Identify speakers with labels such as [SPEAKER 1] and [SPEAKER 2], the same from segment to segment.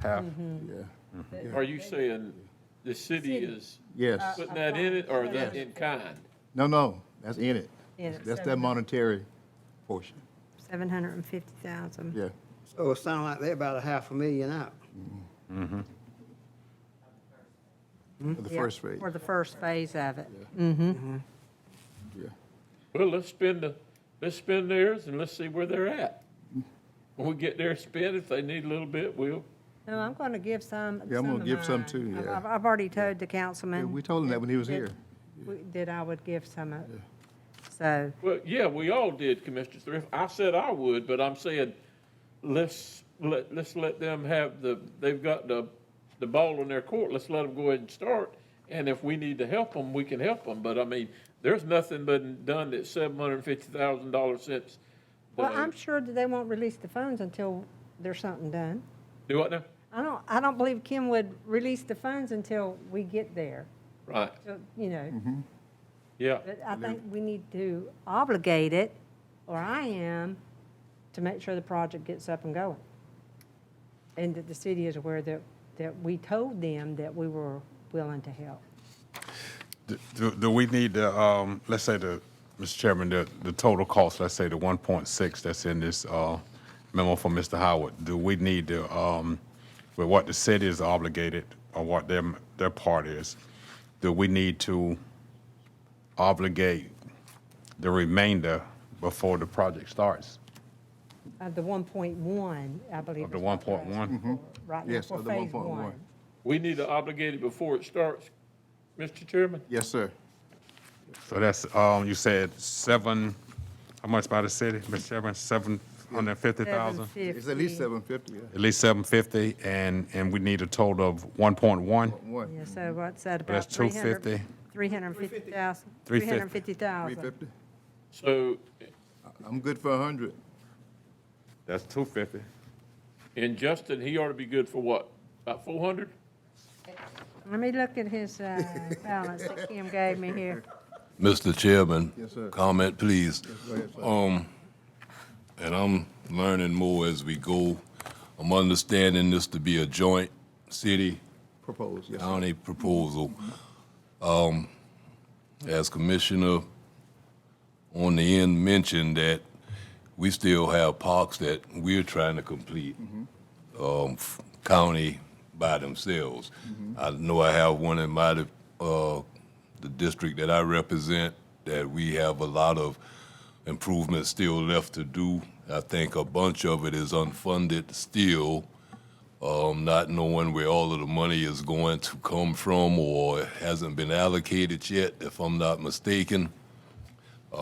[SPEAKER 1] half.
[SPEAKER 2] Yeah.
[SPEAKER 3] Are you saying the city is
[SPEAKER 2] Yes.
[SPEAKER 3] putting that in it, or is that in kind?
[SPEAKER 2] No, no, that's in it.
[SPEAKER 4] Yeah,
[SPEAKER 2] That's that
[SPEAKER 4] seven.
[SPEAKER 2] monetary portion.
[SPEAKER 4] 750,000.
[SPEAKER 2] Yeah.
[SPEAKER 5] So Oh, it sounds like they're about a half a million out.
[SPEAKER 2] For the
[SPEAKER 4] Yeah,
[SPEAKER 2] first rate.
[SPEAKER 4] For the first phase of it.
[SPEAKER 2] Yeah.
[SPEAKER 3] Well, let's spend the, let's spend theirs and let's see where they're at. When we get there, spend, if they need a little bit, we'll.
[SPEAKER 4] No, I'm going to give some.
[SPEAKER 2] Yeah, I'm gonna
[SPEAKER 4] of
[SPEAKER 2] give some
[SPEAKER 4] mine.
[SPEAKER 2] too,
[SPEAKER 4] I've-
[SPEAKER 2] yeah.
[SPEAKER 4] I've, I've already told the
[SPEAKER 2] Yeah,
[SPEAKER 4] councilman.
[SPEAKER 2] We told him that when he was
[SPEAKER 4] that-
[SPEAKER 2] here.
[SPEAKER 4] we- That I would give some of, so,
[SPEAKER 3] Well, yeah, we all did, Commissioner Thrift. I said I would, but I'm saying, let's, let, let's let them have the, they've got the, the ball in their court. Let's let them go ahead and start. And if we need to help them, we can help them. But I mean, there's nothing been done that's seven hundred and fifty thousand dollars since. the-
[SPEAKER 4] well, I'm sure that they won't release the funds until there's something done.
[SPEAKER 3] Do what now?
[SPEAKER 4] I don't, I don't believe Kim would release the funds until we get there,
[SPEAKER 3] Right,
[SPEAKER 4] So, you
[SPEAKER 2] Mm-hmm.
[SPEAKER 4] know.
[SPEAKER 3] yeah.
[SPEAKER 4] But I think we need to obligate it, or I am, to make sure the project gets up and going. And that the city is aware that, that we told them that we were willing to help.
[SPEAKER 6] Do- Do, do we need the, um, let's say the, Mr. Chairman, the, the total cost, let's say the one point six that's in this, uh, memo from Mr. Howard, do we need to, um, with what the city is obligated or what their, their part is, do we need to obligate the remainder before the project starts?
[SPEAKER 4] Uh, the one point one, I believe.
[SPEAKER 6] Of the
[SPEAKER 4] is what we're asking
[SPEAKER 6] 1.1? Mhm.
[SPEAKER 4] for Right
[SPEAKER 2] Mm-hmm.
[SPEAKER 4] now,
[SPEAKER 2] Yes,
[SPEAKER 4] for
[SPEAKER 2] of the
[SPEAKER 4] phase
[SPEAKER 2] 1.1.
[SPEAKER 4] one.
[SPEAKER 3] We need to obligate it before it starts, Mr. Chairman?
[SPEAKER 2] Yes, sir.
[SPEAKER 6] So that's, um, you said seven, how much by the city, Mr. Chairman, seven hundred and fifty thousand?
[SPEAKER 2] It's at least
[SPEAKER 4] 750.
[SPEAKER 2] seven fifty, yeah.
[SPEAKER 6] At least seven fifty, and, and we need a total of one point one.
[SPEAKER 2] One,
[SPEAKER 4] Yeah, so what's that about?
[SPEAKER 6] That's 250.
[SPEAKER 4] Three hundred and fifty thousand.
[SPEAKER 6] 350.
[SPEAKER 2] three
[SPEAKER 4] 350,000.
[SPEAKER 2] fifty.
[SPEAKER 3] So
[SPEAKER 2] I'm good for a hundred.
[SPEAKER 6] That's two fifty.
[SPEAKER 3] And Justin, he ought to be good for what, about four hundred?
[SPEAKER 4] Let me look at his, uh, balance that Kim gave me here.
[SPEAKER 7] Mr. Chairman.
[SPEAKER 2] Yes, sir.
[SPEAKER 7] Comment, please.
[SPEAKER 2] Go ahead, sir.
[SPEAKER 7] Um, and I'm learning more as we go. I'm understanding this to be a joint city
[SPEAKER 2] Propose, yes. sir.
[SPEAKER 7] county proposal. Um, as Commissioner on the end mentioned that we still have parks that we're trying to complete, um, f- county by themselves. I know I have one in my, uh, the district that I represent, that we have a lot of improvements still left to do. I think a bunch of it is unfunded still um, not knowing where all of the money is going to come from or hasn't been allocated yet, if I'm not mistaken. Um,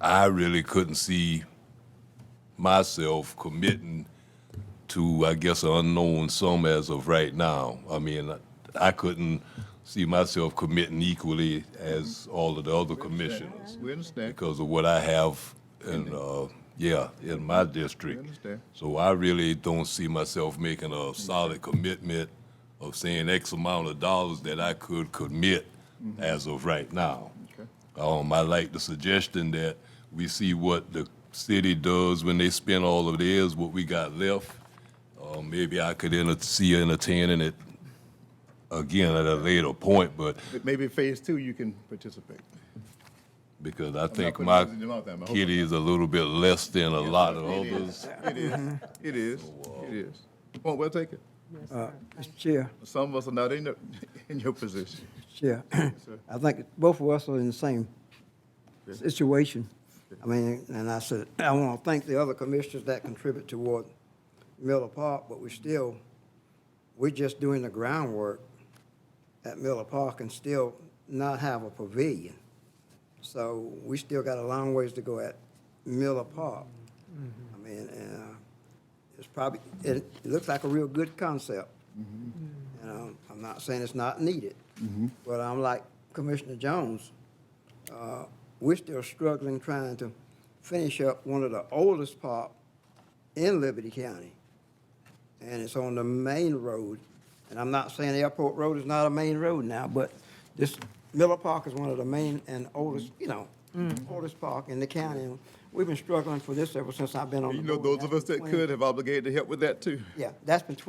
[SPEAKER 7] I really couldn't see myself committing to, I guess, an unknown sum as of right now. I mean, I couldn't see myself committing equally as all of the other commissioners
[SPEAKER 2] We understand.
[SPEAKER 7] because of what I have in, uh, yeah, in my district.
[SPEAKER 2] understand. Mm-hmm.
[SPEAKER 7] So I really don't see myself making a solid commitment of saying X amount of dollars that I could commit as of right now.
[SPEAKER 2] Mm-hmm. Okay.
[SPEAKER 7] Um, I like the suggestion that we see what the city does when they spend all of theirs, what we got left. Uh, maybe I could enter, see entertaining it again at a later point, but
[SPEAKER 2] But Maybe phase two, you can participate.
[SPEAKER 7] because I think
[SPEAKER 2] putting
[SPEAKER 7] my
[SPEAKER 2] words in your mouth, I'm hoping
[SPEAKER 7] kitty is a little bit less than a lot of
[SPEAKER 2] It
[SPEAKER 7] others.
[SPEAKER 2] is. It is, it is,
[SPEAKER 7] Oh,
[SPEAKER 2] it is. Well, we'll take it. Uh,
[SPEAKER 8] Mr. Chair,
[SPEAKER 2] Some of us are not in, the- in your position.
[SPEAKER 8] Chair, I think both of us are in the same situation. I mean, and I said, I want to thank the other commissioners that contribute toward Miller Park, but we still, we're just doing the groundwork at Miller Park and still not have a pavilion. So we still got a long ways to go at Miller Park. I mean, and, uh, it's probably, it, it looks like a real good concept. And um, I'm not saying it's not needed, but I'm like Commissioner Jones, uh, we're still struggling trying to finish up one of the oldest park in Liberty County. And it's on the main road. And I'm not saying Airport Road is not a main road now, but this Miller Park is one of the main and oldest, you know, oldest park in the county. And We've been struggling for this ever since I've been on
[SPEAKER 2] You
[SPEAKER 8] the
[SPEAKER 2] know,
[SPEAKER 8] board.
[SPEAKER 2] those of us
[SPEAKER 8] Oh, That's
[SPEAKER 2] that
[SPEAKER 8] been
[SPEAKER 2] could have obligated to help with that too.
[SPEAKER 8] 20 Yeah, that's been twenty